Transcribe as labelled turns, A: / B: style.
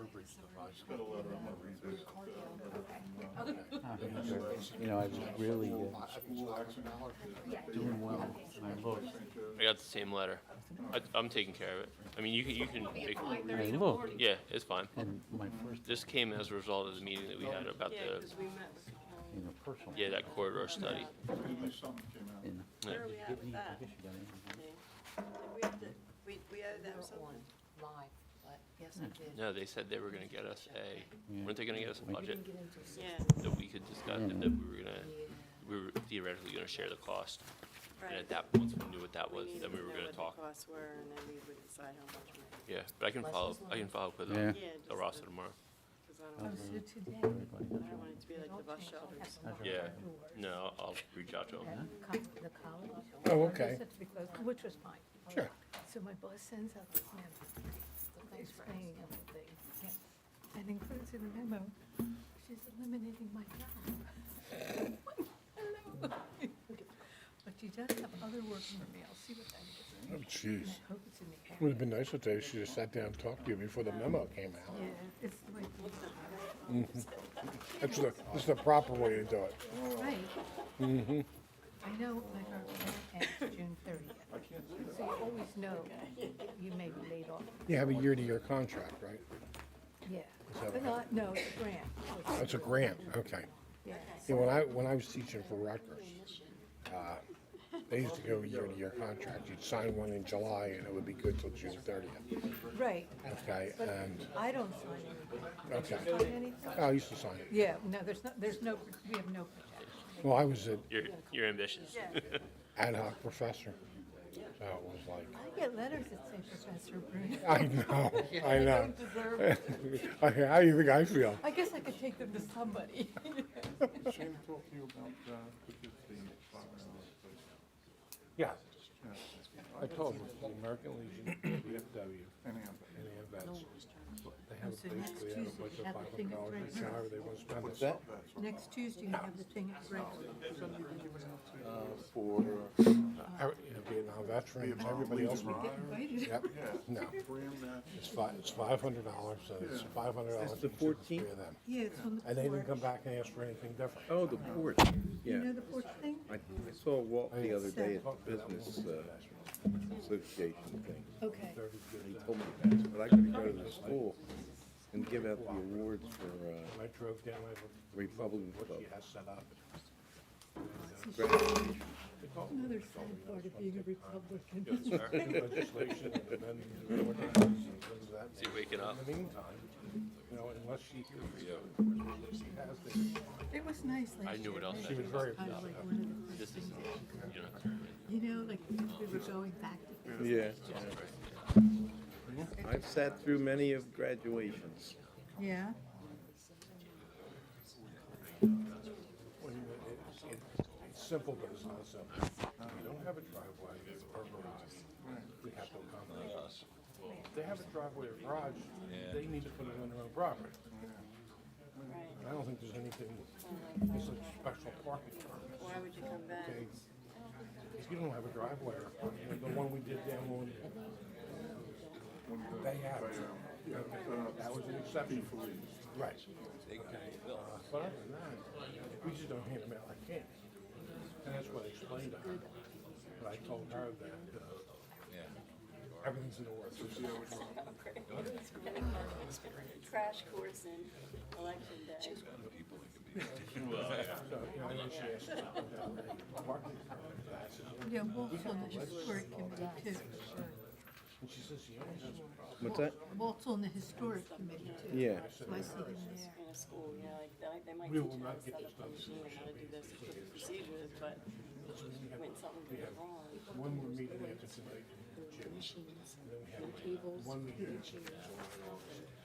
A: I just got a letter, I'm gonna read this.
B: Ah, You know, I was really uh,
A: School accident.
B: doing well, and I looked,
C: I got the same letter. I, I'm taking care of it. I mean, you can, you can, it-
B: and I looked,
C: yeah, it's fine.
B: and my first,
C: This came as a result of the meeting that we had about
D: Yeah,
C: the,
D: because we met with
B: you know, personal.
C: yeah, that corridor study.
A: At least something came out.
B: And
C: Yeah.
D: Where are we
B: it
D: at
B: hit
D: with
B: me, I
D: that?
B: guess you got it.
D: We have to, we, we owe them something.
E: Live, but yes, I
F: Hmm.
E: did.
C: No, they said they were gonna get us a, weren't they gonna get us a
B: Yeah.
C: budget
E: Get into six
D: Yeah,
C: that we could discuss, and that we were gonna, we were theoretically gonna share the cost. And
D: right.
C: at that, once we knew what that
D: We
C: was,
D: needed
C: then
D: to
C: we
D: know
C: were
D: what
C: gonna
D: the
C: talk.
D: costs were, and then we would decide how much we,
C: Yeah, but I can
E: Less
C: follow,
E: is
C: I
E: more.
C: can follow up with
B: Yeah.
C: um,
D: yeah, just,
C: the roster
D: because I
C: tomorrow.
G: Oh,
D: don't,
E: Uh-huh.
B: so
E: today.
D: I don't want it to be like the bus shelters.
C: Yeah, no, I'll reach out to them.
E: The college.
F: Oh, okay.
E: Said to be closed, Which was fine.
F: Sure.
G: So my boss sends out this memo, explaining everything, and includes in the memo, she's eliminating my job. Hello. But she does have other work for me, I'll see what that is,
F: Oh, jeez.
G: I hope it's in the
F: Would
G: area.
F: have been nicer today if she just sat down and talked to you before the memo came out. Mm-hmm.
G: Yeah, it's the way,
F: That's the, that's the proper way to do it.
G: right.
F: Mm-hmm.
G: I know my contract ends June thirtieth, so you always know you may be laid off,
F: You have a year-to-year contract, right?
G: yeah.
F: that
G: But not,
F: what
G: no, it's a grant,
F: That's a grant, okay.
G: yeah.
F: Yeah, when I, when I was teaching for Rutgers, uh, they used to go year-to-year contract. You'd sign one in July and it would be good till June thirtieth,
G: Right,
F: okay? And,
G: I don't sign anything.
F: okay.
G: Sign anything?
F: I used to sign it.
G: Yeah, no, there's no, there's no, we have no protection.
F: Well, I was an
C: You're, you're ambitious.
F: ad hoc professor, so it was like,
G: I get letters that say Professor Bruno.
F: I know, I know.
G: deserve
F: Okay, How do you think I feel?
G: I guess I could take them to somebody.
A: Shane talked to you about, uh, the fifteen, five hours, please.
F: Yeah. I told them, the American Legion, VFW,
A: Anyhow,
F: and the vets, they have
G: So
F: a
G: next
F: basically have a
G: Tuesday,
F: bunch of
G: have the thing
F: five
G: at
F: dollars,
G: Frank's.
F: however they want to spend it.
A: that's what
G: Next Tuesday, you have the thing at Brentwood.
A: for,
F: Uh, I- you know, Vietnam veterans, everybody else. would- Yep, no,
A: bring that
F: it's five, it's five hundred dollars, so it's five hundred dollars.
H: the
F: between three
H: 14th?
F: of them.
G: Yeah, it's on
F: And they
G: the
F: didn't come
G: porch.
F: back and ask for anything different.
H: Oh, the porch, yeah.
G: You know the porch thing?
H: I I saw Walt the other day at the business uh, association thing.
G: Okay.
H: He told me about it, but I gotta go to the school and give out the awards for uh,
F: I drove down, I looked at
H: Republican
F: what
H: Club.
F: she has set up.
G: Another sad part of being a Republican.
F: Legislation and amending the ordinance and things of that
C: Is he waking up?
F: In the meantime, you know, unless she hears what she has to-
G: It was nice
C: I
G: last
C: knew
G: year.
C: what else
G: right?
C: I
F: she was very
G: Kind of
F: upset.
G: like one of the,
C: This is, you know, it's all right.
G: you know, like we were going back to this.
H: Yeah. I've sat through many of graduations.
G: Yeah?
F: Well, you know, it's- it's- It's simple, but it's not simple. We don't have a driveway or garage. We have to accommodate us. They have a driveway or garage, they need to put it on their own property. And I don't think there's anything, it's a special parking permit.
D: Why would you come back?
F: okay? If you don't have a driveway or, you know, the one we did down on, they have, okay, that was an exception for me. Right. Okay, uh, But other than that, we just don't hand them out like candy. And that's what I explained to her. But I told her that, uh, everything's in the works.
D: Crash course in election day.
F: So, you know, I know she asked about the parking permit, but I said,
G: Yeah, Walsall is where it can be too.
F: and she says, yeah, it's just-
H: What's that?
G: Walt's on the historic committee too.
H: Yeah.
G: So I see him there.
D: In a school, you know, like, they- like, they might
F: We
D: teach
F: will
D: you how to
F: not get
D: set
F: this
D: up the
F: done.
D: machine and how to do those procedures, but when something goes wrong,
F: one more meeting after tonight, Jim. And then we have one meeting. in July, August.